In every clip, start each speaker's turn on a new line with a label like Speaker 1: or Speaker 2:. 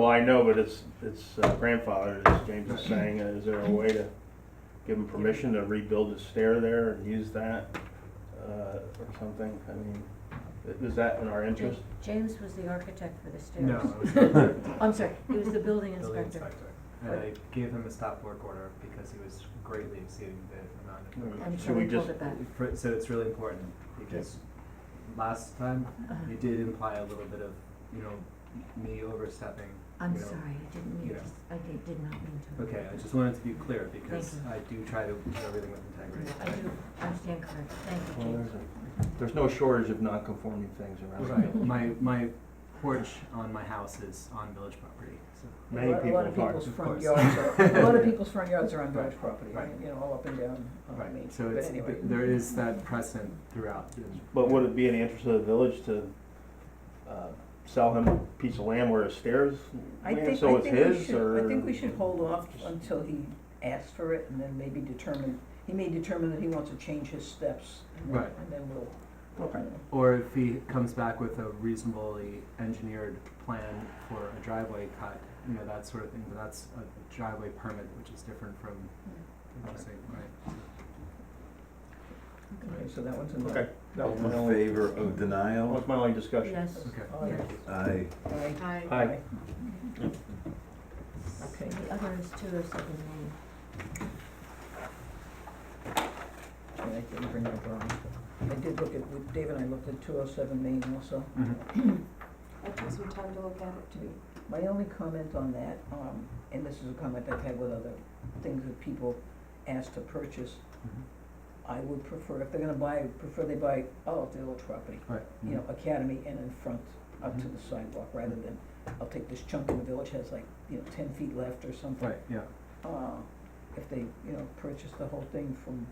Speaker 1: Well, Oh, I know, but it's, it's uh, grandfathered, as James is saying, is there a way to give him permission to rebuild his stair there and use that, uh, or something? I mean, is that in our interest?
Speaker 2: James was the architect for the stairs.
Speaker 3: No, I was not
Speaker 2: I'm sorry, he was the building
Speaker 3: building
Speaker 2: inspector.
Speaker 3: inspector. And I gave him a stop work order because he was greatly exceeding the amount of.
Speaker 1: Mm.
Speaker 2: And
Speaker 1: Should
Speaker 2: Kevin
Speaker 1: we just-
Speaker 2: pulled it back.
Speaker 3: For- So it's really important because last time
Speaker 2: Uh-huh.
Speaker 3: you did imply a little bit of, you know, me overstepping.
Speaker 2: I'm
Speaker 3: you know.
Speaker 2: sorry, I didn't mean
Speaker 3: you
Speaker 2: to,
Speaker 3: know.
Speaker 2: I did, did not mean to.
Speaker 3: Okay, I just wanted to be clear because
Speaker 2: you.
Speaker 3: I do try to do everything with integrity.
Speaker 2: I do, I stand corrected, thank you,
Speaker 1: Well,
Speaker 2: James.
Speaker 1: there's a- There's no shortage of non-conforming things around.
Speaker 3: Right, my, my porch on my house is on village property, so.
Speaker 1: Many
Speaker 4: A lot of
Speaker 1: people
Speaker 4: people's
Speaker 3: of
Speaker 4: front
Speaker 3: course.
Speaker 4: yards are, a lot of people's front yards are on
Speaker 3: Right,
Speaker 4: village property,
Speaker 3: right.
Speaker 4: you know, all up and down
Speaker 1: Oh,
Speaker 4: on Main
Speaker 3: Right,
Speaker 4: Street,
Speaker 3: so
Speaker 4: but
Speaker 3: it's,
Speaker 4: anyway.
Speaker 3: but there is that precedent throughout. the-
Speaker 1: But would it be in the interest of the village to, uh, sell him a piece of land where his stairs
Speaker 4: I
Speaker 1: land,
Speaker 4: think,
Speaker 1: so
Speaker 4: I
Speaker 1: it's
Speaker 4: think we
Speaker 1: his,
Speaker 4: should,
Speaker 1: or?
Speaker 4: I think we should hold off until he asks for it and then maybe determine, he may determine that he wants to change his steps. and then-
Speaker 3: Right.
Speaker 4: And then we'll, we'll,
Speaker 1: Okay.
Speaker 4: you
Speaker 3: Or if he comes back with a reasonably engineered plan for a driveway cut, you know, that sort of thing, but that's a driveway permit, which is different from,
Speaker 1: Interesting.
Speaker 3: right?
Speaker 4: know, okay, so that one's in
Speaker 1: Okay,
Speaker 4: there.
Speaker 1: that was my
Speaker 5: In
Speaker 1: only,
Speaker 5: favor
Speaker 1: that
Speaker 5: of denial?
Speaker 1: was my only discussion.
Speaker 2: Yes.
Speaker 3: Okay.
Speaker 4: All right,
Speaker 5: Aye.
Speaker 4: all right,
Speaker 2: Hi.
Speaker 1: Aye.
Speaker 4: all right. Okay.
Speaker 2: The other is two oh seven Main.
Speaker 4: And I didn't bring my drawing. I did look at, we- Dave and I looked at two oh seven Main also.
Speaker 3: Mm-hmm.
Speaker 6: I took some time to look at it too.
Speaker 4: My only comment on that, um, and this is a comment I've had with other things that people ask to purchase,
Speaker 3: Mm-hmm.
Speaker 4: I would prefer, if they're gonna buy, prefer they buy all of the old property,
Speaker 3: Right. Mm-hmm.
Speaker 4: you know, Academy and in front, up to
Speaker 3: Mhm.
Speaker 4: the sidewalk, rather than, I'll take this chunk in the village, has like, you know, ten feet left or something.
Speaker 3: Right, yeah.
Speaker 4: Uh, if they, you know, purchase the whole thing from,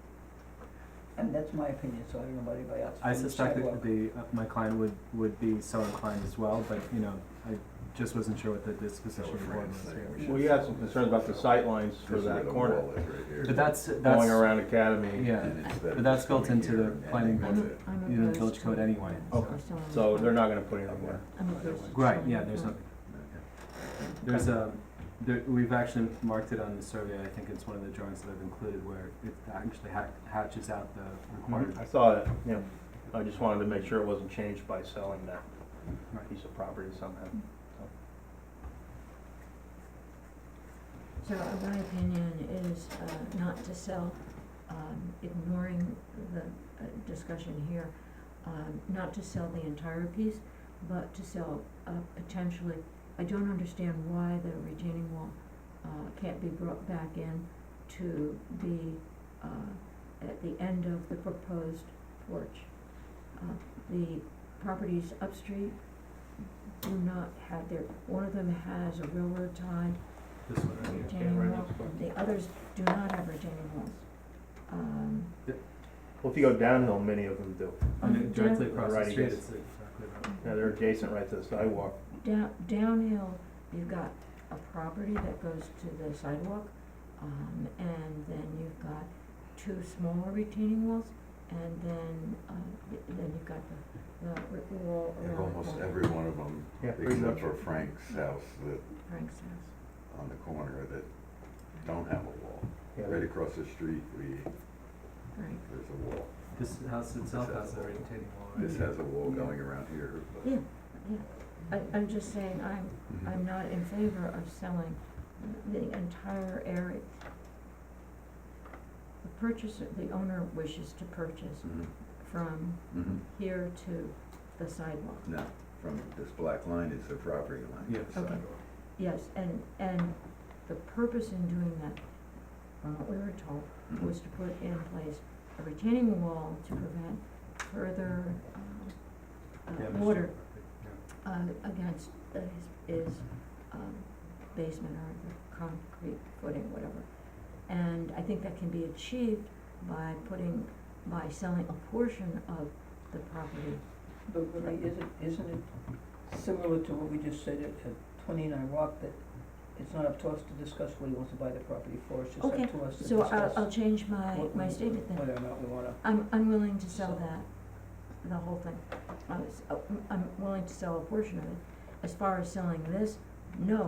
Speaker 4: and that's my opinion, so I don't know about anybody else.
Speaker 3: I
Speaker 4: from the
Speaker 3: suspect that
Speaker 4: sidewalk.
Speaker 3: the, uh, my client would, would be so inclined as well, but, you know, I just wasn't sure what the disposition of the board was here.
Speaker 1: Well, you had some concerns about the sight lines for
Speaker 5: This is where
Speaker 1: that
Speaker 5: the
Speaker 1: corner,
Speaker 5: wall is right here.
Speaker 3: But that's, that's,
Speaker 1: going around Academy.
Speaker 3: yeah,
Speaker 5: And it's that
Speaker 3: but that's
Speaker 5: it's
Speaker 3: built
Speaker 5: coming
Speaker 3: into
Speaker 5: here
Speaker 3: the
Speaker 5: and
Speaker 3: planning
Speaker 5: that's
Speaker 2: I'm,
Speaker 5: it.
Speaker 2: a- I'm
Speaker 3: you know,
Speaker 2: opposed
Speaker 3: village
Speaker 2: to
Speaker 3: code
Speaker 2: it.
Speaker 3: anyway,
Speaker 2: I'm
Speaker 3: so.
Speaker 1: Okay.
Speaker 2: still on the
Speaker 1: So
Speaker 2: plan.
Speaker 1: they're not gonna put it anywhere.
Speaker 2: I'm opposed to
Speaker 3: Right,
Speaker 2: showing
Speaker 3: yeah,
Speaker 2: the
Speaker 3: there's
Speaker 2: plan.
Speaker 3: nothing. There's a, there, we've actually marked it on the survey, I think it's one of the drawings that I've included where it actually ha- hatches out the required.
Speaker 1: I saw it, yeah, I just wanted to make sure it wasn't changed by selling that
Speaker 3: Right.
Speaker 1: piece of property somehow.
Speaker 2: So uh, my opinion is uh, not to sell, um, ignoring the uh, discussion here, um, not to sell the entire piece, but to sell uh, potentially, I don't understand why the retaining wall uh, can't be brought back in to be uh, at the end of the proposed porch. Uh, The properties upstream do not have their, one of them has a railroad tie
Speaker 3: This one right here.
Speaker 1: Yeah, right
Speaker 2: retaining wall,
Speaker 1: next door.
Speaker 2: the others do not have retaining walls. Um,
Speaker 1: Well, if you go downhill, many of them do.
Speaker 3: And it directly
Speaker 2: down-
Speaker 3: across the
Speaker 1: Right,
Speaker 3: street,
Speaker 1: yes.
Speaker 3: it's exactly right.
Speaker 1: Yeah, they're adjacent right to the sidewalk.
Speaker 2: Down, downhill, you've got a property that goes to the sidewalk, um, and then you've got two smaller retaining walls, and then, uh, y- then you've got the, the brick wall
Speaker 5: If
Speaker 2: around.
Speaker 5: Almost
Speaker 2: the
Speaker 5: every one of them,
Speaker 1: Yeah, pretty much.
Speaker 5: except for Frank's house that,
Speaker 2: Frank's house.
Speaker 5: on the corner that don't have a wall.
Speaker 1: Yeah.
Speaker 5: Right across the street, we,
Speaker 2: Right,
Speaker 5: there's a wall.
Speaker 3: This house itself
Speaker 5: This has
Speaker 3: has a
Speaker 5: a-
Speaker 3: retaining wall, right?
Speaker 5: This has a wall going around here,
Speaker 2: yeah,
Speaker 5: but.
Speaker 2: yeah. I, I'm just saying, I'm,
Speaker 1: Mm-hmm.
Speaker 2: I'm not in favor of selling the entire area. The purchaser, the owner wishes to purchase
Speaker 5: Mhm,
Speaker 2: from
Speaker 5: mhm.
Speaker 2: here to the sidewalk.
Speaker 5: No, from this black line is the property line.
Speaker 3: Yeah.
Speaker 5: the
Speaker 2: Okay.
Speaker 5: sidewalk.
Speaker 2: Yes, and, and the purpose in doing that, from what we were told,
Speaker 5: Mhm.
Speaker 1: Mm-hmm.
Speaker 2: was to put in place a retaining wall to prevent further, um,
Speaker 3: Yeah,
Speaker 2: uh,
Speaker 3: Mr.
Speaker 2: water,
Speaker 3: Murphy, yeah.
Speaker 2: uh, against uh, his, his, um, basement or the concrete footing, whatever. And I think that can be achieved by putting, by selling a portion of the property.
Speaker 4: But really, isn't, isn't it similar to what we just said at, at twenty-nine Rock, that it's not up to us to discuss what he wants to buy the property for, it's just up
Speaker 2: Okay,
Speaker 4: to us to
Speaker 2: So I'll, I'll
Speaker 4: discuss
Speaker 2: change my,
Speaker 4: what
Speaker 2: my
Speaker 4: we-
Speaker 2: statement then.
Speaker 4: whether or not we wanna,
Speaker 2: I'm, I'm willing to sell
Speaker 4: So-
Speaker 2: that, the whole thing. oh, I was, I'm willing to sell a portion of it. As far as selling this, no,